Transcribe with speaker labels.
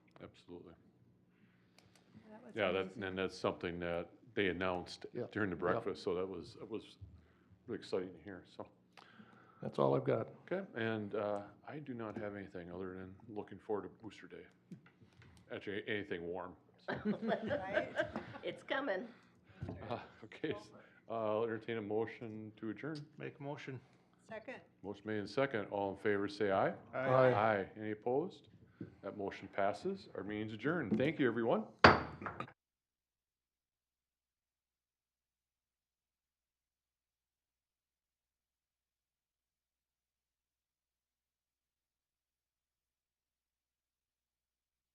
Speaker 1: absolutely.
Speaker 2: That was
Speaker 1: Yeah, that,
Speaker 2: amazing.
Speaker 1: and that's something that they announced
Speaker 3: Yeah,
Speaker 1: during the
Speaker 3: yeah.
Speaker 1: breakfast, so that was, it was really exciting to hear, so.
Speaker 3: That's all I've got.
Speaker 1: Okay, and uh, I do not have anything other than looking forward to Booster Day. Actually, anything warm. so.
Speaker 4: It's coming.
Speaker 1: Uh, Okay, s- uh, I'll entertain a motion to adjourn.
Speaker 5: Make a motion.
Speaker 2: Second.
Speaker 1: Motion made and second, all in favor, say aye.
Speaker 3: Aye.
Speaker 1: Aye. Any opposed? That motion passes. Our meeting's adjourned. Thank you, everyone.